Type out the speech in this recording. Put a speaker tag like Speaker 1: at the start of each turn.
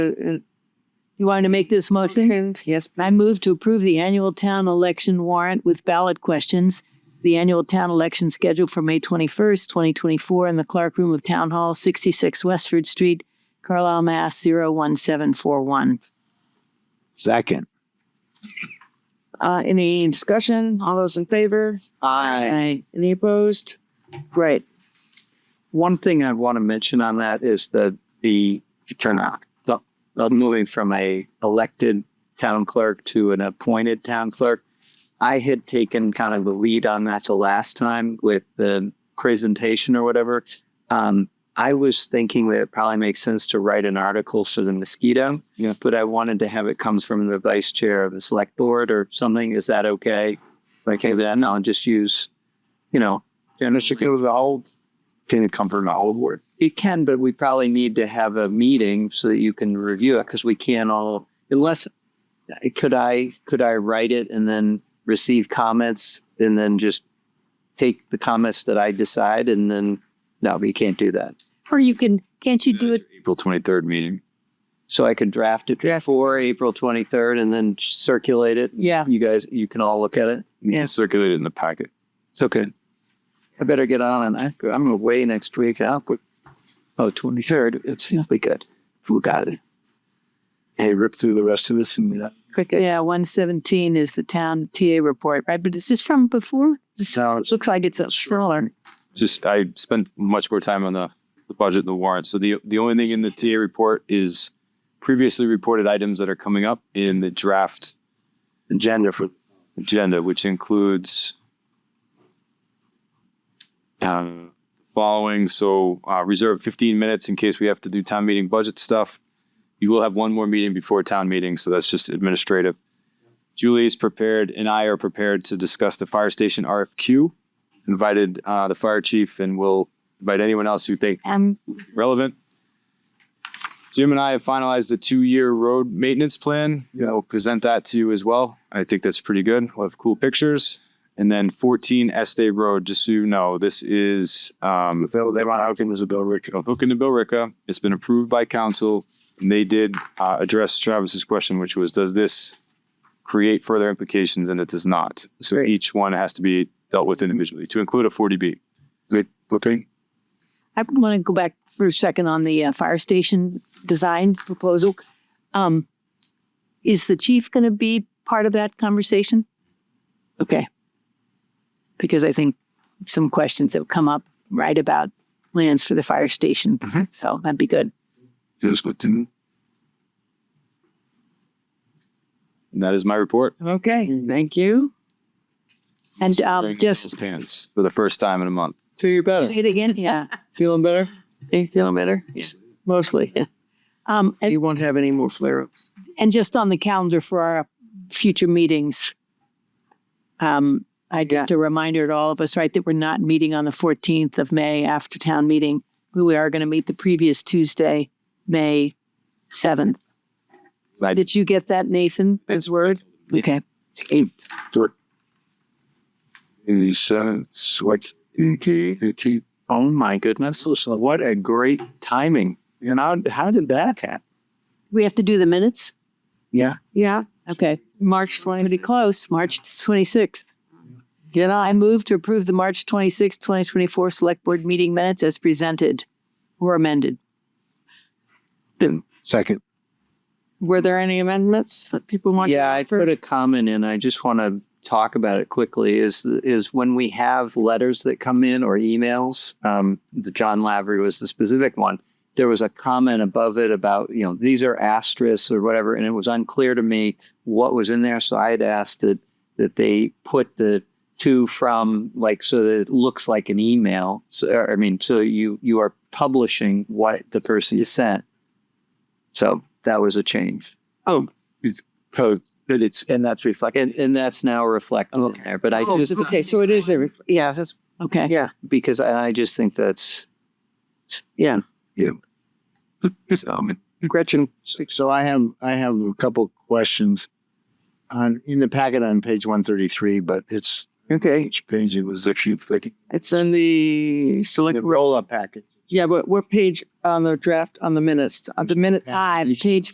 Speaker 1: You want to make this motion?
Speaker 2: Yes.
Speaker 3: I move to approve the annual town election warrant with ballot questions. The annual town election scheduled for May twenty-first, twenty twenty-four in the Clark Room of Town Hall, sixty-six Westford Street, Carlisle, Mass. 01741.
Speaker 4: Second.
Speaker 2: Uh, any discussion? All those in favor? Aye.
Speaker 3: I,
Speaker 2: Any opposed? Great.
Speaker 5: One thing I want to mention on that is that the turnout, the, the moving from a elected town clerk to an appointed town clerk. I had taken kind of the lead on that the last time with the presentation or whatever. Um, I was thinking that it probably makes sense to write an article for the mosquito.
Speaker 4: Yeah.
Speaker 5: But I wanted to have it comes from the vice chair of the select board or something. Is that okay? Like, hey, then I'll just use, you know,
Speaker 6: And it was all, can it come from the whole board?
Speaker 5: It can, but we probably need to have a meeting so that you can review it because we can't all unless could I could I write it and then receive comments and then just take the comments that I decide and then no, we can't do that.
Speaker 3: or you can, can't you do it?
Speaker 6: April twenty-third meeting.
Speaker 5: So I could draft it for April twenty third and then circulate it.
Speaker 1: Yeah.
Speaker 5: You guys you can all look at it.
Speaker 6: You
Speaker 5: Yeah.
Speaker 6: can circulate it in the packet.
Speaker 5: It's okay. I better get on and I, I'm away next week. I'll quit. Oh, 23rd. It's it'll be good. Who got it?
Speaker 6: Hey, rip through the rest of this and that.
Speaker 3: Quick, yeah, one seventeen is the town TA report, right? But is this from before? This
Speaker 5: So
Speaker 3: looks like it's a smaller.
Speaker 6: Just, I spent much more time on the, the budget and the warrant. So the, the only thing in the TA report is previously reported items that are coming up in the draft
Speaker 5: agenda for
Speaker 6: agenda, which includes uh, following. So uh, reserve 15 minutes in case we have to do town meeting budget stuff. You will have one more meeting before town meeting, so that's just administrative. Julie's prepared, and I are prepared to discuss the fire station RFQ. Invited uh, the fire chief, and we'll invite anyone else who think
Speaker 3: Um,
Speaker 6: relevant. Jim and I have finalized the two-year road maintenance plan. Yeah. We'll present that to you as well. I think that's pretty good. We'll have cool pictures. And then 14 Estee Road, just so you know, this is um, Bill, they want Hookin as a Bill Ricca. Hookin to Bill Ricca. It's been approved by council. And they did uh, address Travis's question, which was, does this create further implications? And it does not. So
Speaker 2: Great.
Speaker 6: each one has to be dealt with individually to include a 40B.
Speaker 7: Good looking.
Speaker 3: I want to go back for a second on the uh, fire station design proposal. Um, is the chief going to be part of that conversation? Okay. Because I think some questions have come up right about plans for the fire station. So that'd be good.
Speaker 7: Just good to know.
Speaker 6: And that is my report.
Speaker 2: Okay.
Speaker 1: Thank you.
Speaker 3: And uh,
Speaker 6: Wearing
Speaker 3: just
Speaker 6: those pants for the first time in a month.
Speaker 1: So you're better.
Speaker 3: say it again. Yeah.
Speaker 1: Feeling better?
Speaker 2: Any feeling better?
Speaker 1: Mostly.
Speaker 3: Um, and,
Speaker 2: You won't have any more flare ups.
Speaker 3: and just on the calendar for our future meetings. Um, I
Speaker 2: Yeah.
Speaker 3: just a reminder to all of us, right, that we're not meeting on the 14th of May after town meeting. We are going to meet the previous Tuesday, May 7th.
Speaker 6: Right.
Speaker 3: Did you get that, Nathan? His word? Okay.
Speaker 7: Eight. The seventh, select,
Speaker 5: E
Speaker 7: eighteen.
Speaker 5: Oh my goodness. Listen, what a great timing. You know, how did that happen?
Speaker 3: We have to do the minutes?
Speaker 2: Yeah.
Speaker 3: Okay.
Speaker 2: March
Speaker 3: Pretty
Speaker 2: 20th.
Speaker 3: close, March 26th. Get on. I move to approve the March 26th, 2024 Select Board Meeting Minutes as presented or amended.
Speaker 4: Second.
Speaker 2: Were there any amendments that people want? to
Speaker 5: Yeah, I
Speaker 2: offer?
Speaker 5: put a comment in. I just want to talk about it quickly. Is is when we have letters that come in or emails. Um, the John Lavery was the specific one. There was a comment above it about you know these are asterisks or whatever, and it was unclear to me what was in there. So I had asked that that they put the to from like so that it looks like an email. So or, I mean, so you you are publishing what the person sent. So that was a change.
Speaker 6: Code.
Speaker 5: That it's and that's reflected, and, and that's now reflected in there. But I
Speaker 2: Oh,
Speaker 5: just
Speaker 2: Okay, so it is a, ref- yeah, that's,
Speaker 3: Okay.
Speaker 5: because I, I just think that's
Speaker 2: yeah.
Speaker 7: This element.
Speaker 8: Gretchen, so I have, I have a couple questions on, in the packet on page one thirty-three, but it's
Speaker 2: Okay.
Speaker 7: Each page it was actually flicking.
Speaker 2: It's in the select,
Speaker 8: the roll-up packet.
Speaker 2: yeah, but what page on the draft, on the minutes, on the minute?
Speaker 3: Five, page